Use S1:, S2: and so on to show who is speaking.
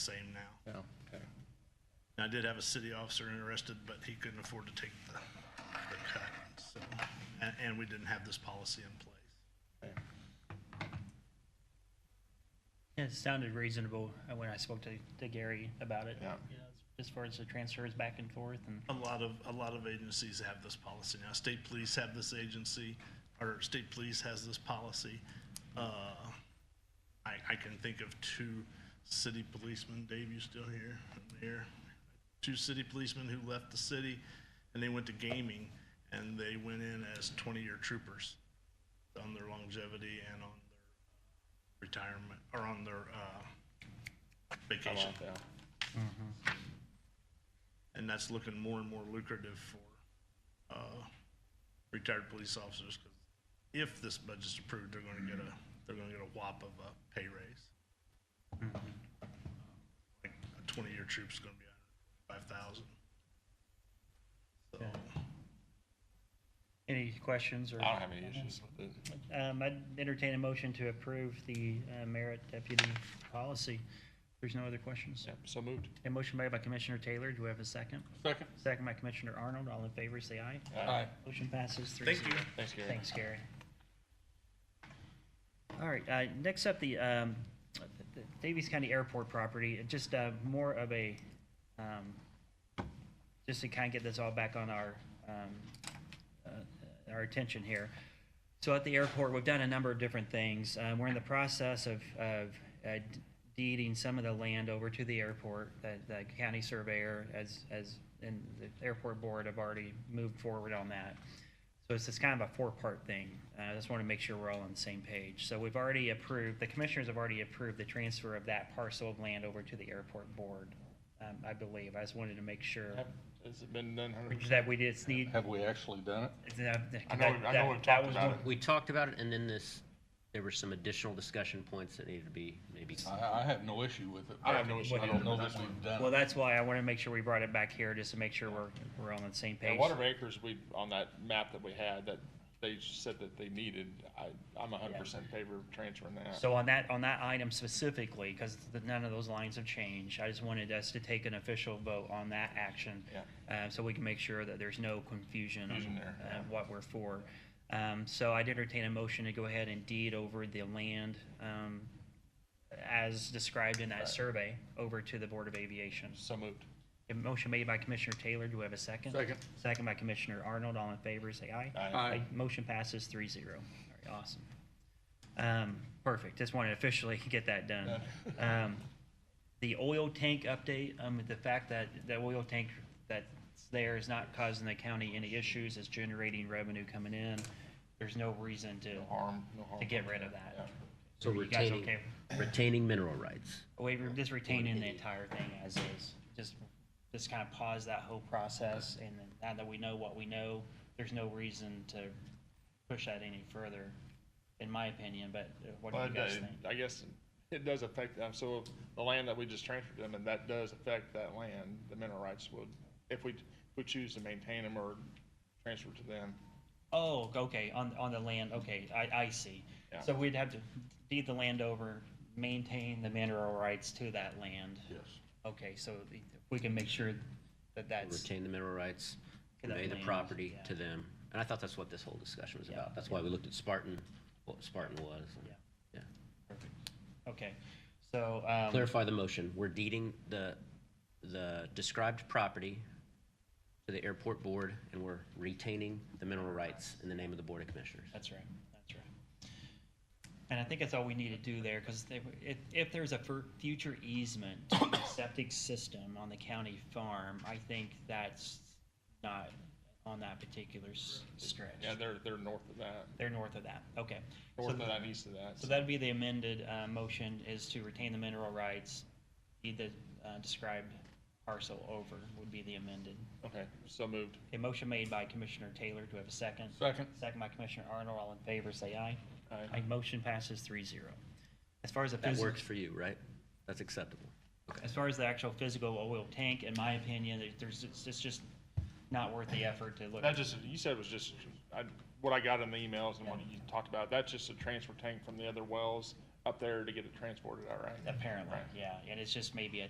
S1: same now.
S2: No, okay.
S1: And I did have a city officer interested, but he couldn't afford to take the, the cut, so, and, and we didn't have this policy in place.
S2: okay.
S3: Yeah, It sounded reasonable uh, when I spoke to, to Gary about it.
S2: Yeah.
S3: You know, As far as the transfers back and forth and,
S1: A lot of, a lot of agencies have this policy now. State police have this agency, or state police has this policy. Uh, I, I can think of two city policemen, Dave, you still here? Here. Two city policemen who left the city and they went to gaming and they went in as twenty-year troopers on their longevity and on their retirement, or on their, uh,
S2: How
S1: vacation.
S2: about that?
S1: and that's looking more and more lucrative for uh, retired police officers. 'cause If this budget's approved, they're going to get a, they're going to get a whop of a pay raise. Like a twenty-year troop's going to be five thousand. So,
S3: any questions or?
S2: I don't have any issues with it.
S3: Um, I'd entertain a motion to approve the uh, merit deputy policy. There's no other questions.
S2: Yep, so moved.
S3: A motion made by Commissioner Taylor. Do we have a second?
S2: Second.
S3: Second by Commissioner Arnold. All in favor, say aye.
S2: Aye.
S3: Motion passes three
S1: thank
S3: zero.
S1: you.
S2: Thanks, Gary.
S3: Thanks, Gary. All right, uh, next up, the, um, the Davies County Airport property, It just, uh, more of a, um, just to kind of get this all back on our, um, uh, our attention here. So at the airport, we've done a number of different things. Uh, we're in the process of, of uh, deeding some of the land over to the airport. The, the county surveyor, as, as, and the airport board have already moved forward on that. So it's just kind of a four-part thing. Uh, I just want to make sure we're all on the same page. So we've already approved, the commissioners have already approved the transfer of that parcel of land over to the airport board, um, I believe. I just wanted to make sure
S2: Have- Has it been done hundred percent?
S3: that we just need.
S2: Have we actually done it?
S3: that-
S2: I know, I know we've
S3: that- that
S2: talked
S3: was
S2: about
S3: one-
S2: it.
S4: We talked about it, and then this, there were some additional discussion points that needed to be maybe.
S2: I, I have no issue with it.
S1: I have no issue
S2: I
S1: either,
S2: don't know
S1: but
S2: that
S1: that's
S2: we've done
S3: Well,
S2: it.
S3: that's why I want to make sure we brought it back here, just to make sure we're, we're on the same
S2: And
S3: page.
S2: Water Acres, we, on that map that we had, that they just said that they needed, I, I'm a hundred percent favor of transferring that.
S3: So on that, on that item specifically, because none of those lines have changed, I just wanted us to take an official vote on that action. Uh, so we can make sure that there's no confusion
S2: Confusion
S3: on,
S2: there,
S3: uh,
S2: yeah.
S3: what we're for. Um, so I'd entertain a motion to go ahead and deed over the land, um, as described in that survey, over to the Board of Aviation.
S2: So moved.
S3: A motion made by Commissioner Taylor, do we have a second?
S2: Second.
S3: Second by Commissioner Arnold, all in favor, say aye. Aye. Motion passes three zero. All right, awesome. Um, perfect, just wanted to officially get that done. Um, the oil tank update, um, the fact that the oil tank that's there is not causing the county any issues, it's generating revenue coming in. There's no reason to,
S2: No harm, no harm.
S3: to get rid of that.
S2: Yeah.
S4: So
S3: You guys
S4: retaining,
S3: okay?
S4: retaining mineral rights.
S3: We were just retaining the entire thing as is, just, just kind of pause that whole process, and then now that we know what we know, there's no reason to push that any further, in my opinion, but uh, what do
S2: Well,
S3: you
S2: it
S3: guys
S2: does-
S3: think?
S2: I guess it does affect them, so the land that we just transferred them, and that does affect that land, the mineral rights would, if we, if we choose to maintain them or transfer to them.
S3: Oh, okay, on, on the land, okay, I, I see.
S2: Yeah.
S3: So we'd have to deed the land over, maintain the mineral rights to that land.
S2: Yes.
S3: Okay, so we can make sure that that's,
S4: Retain the mineral rights,
S3: To that
S4: convey the
S3: land,
S4: property
S3: yeah.
S4: to them. And I thought that's what this whole discussion was
S3: Yeah,
S4: about. That's why we looked at Spartan, what Spartan was. and-
S3: Yeah.
S4: Yeah.
S3: okay, so, um.
S4: Clarify the motion. We're deeding the, the described property to the airport board, and we're retaining the mineral rights in the name of the Board of Commissioners.
S3: That's right, that's right. And I think that's all we need to do there, because if, if there's a fur- future easement to the septic system on the county farm, I think that's not on that particular s- stretch.
S2: Yeah, they're, they're north of that,
S3: They're north of that, okay. So
S2: north of that, and east of that.
S3: so that'd be the amended, uh, motion is to retain the mineral rights, deed the, uh, described parcel over would be the amended.
S2: Okay, so moved.
S3: A motion made by Commissioner Taylor, do we have a second?
S2: Second.
S3: Second by Commissioner Arnold, all in favor, say aye.
S2: Aye.
S3: Aye, motion passes three zero. As far as the
S4: That
S3: physical,
S4: works for you, right? That's acceptable. Okay.
S3: as far as the actual physical oil tank, in my opinion, there- there's, it's it's just not worth the effort to look.
S2: That just, you said was just, I, what I got in the emails and what you talked about, that's just a transfer tank from the other wells up there to get it transported, all right?
S3: Apparently,
S2: Right.
S3: yeah, and it's just maybe a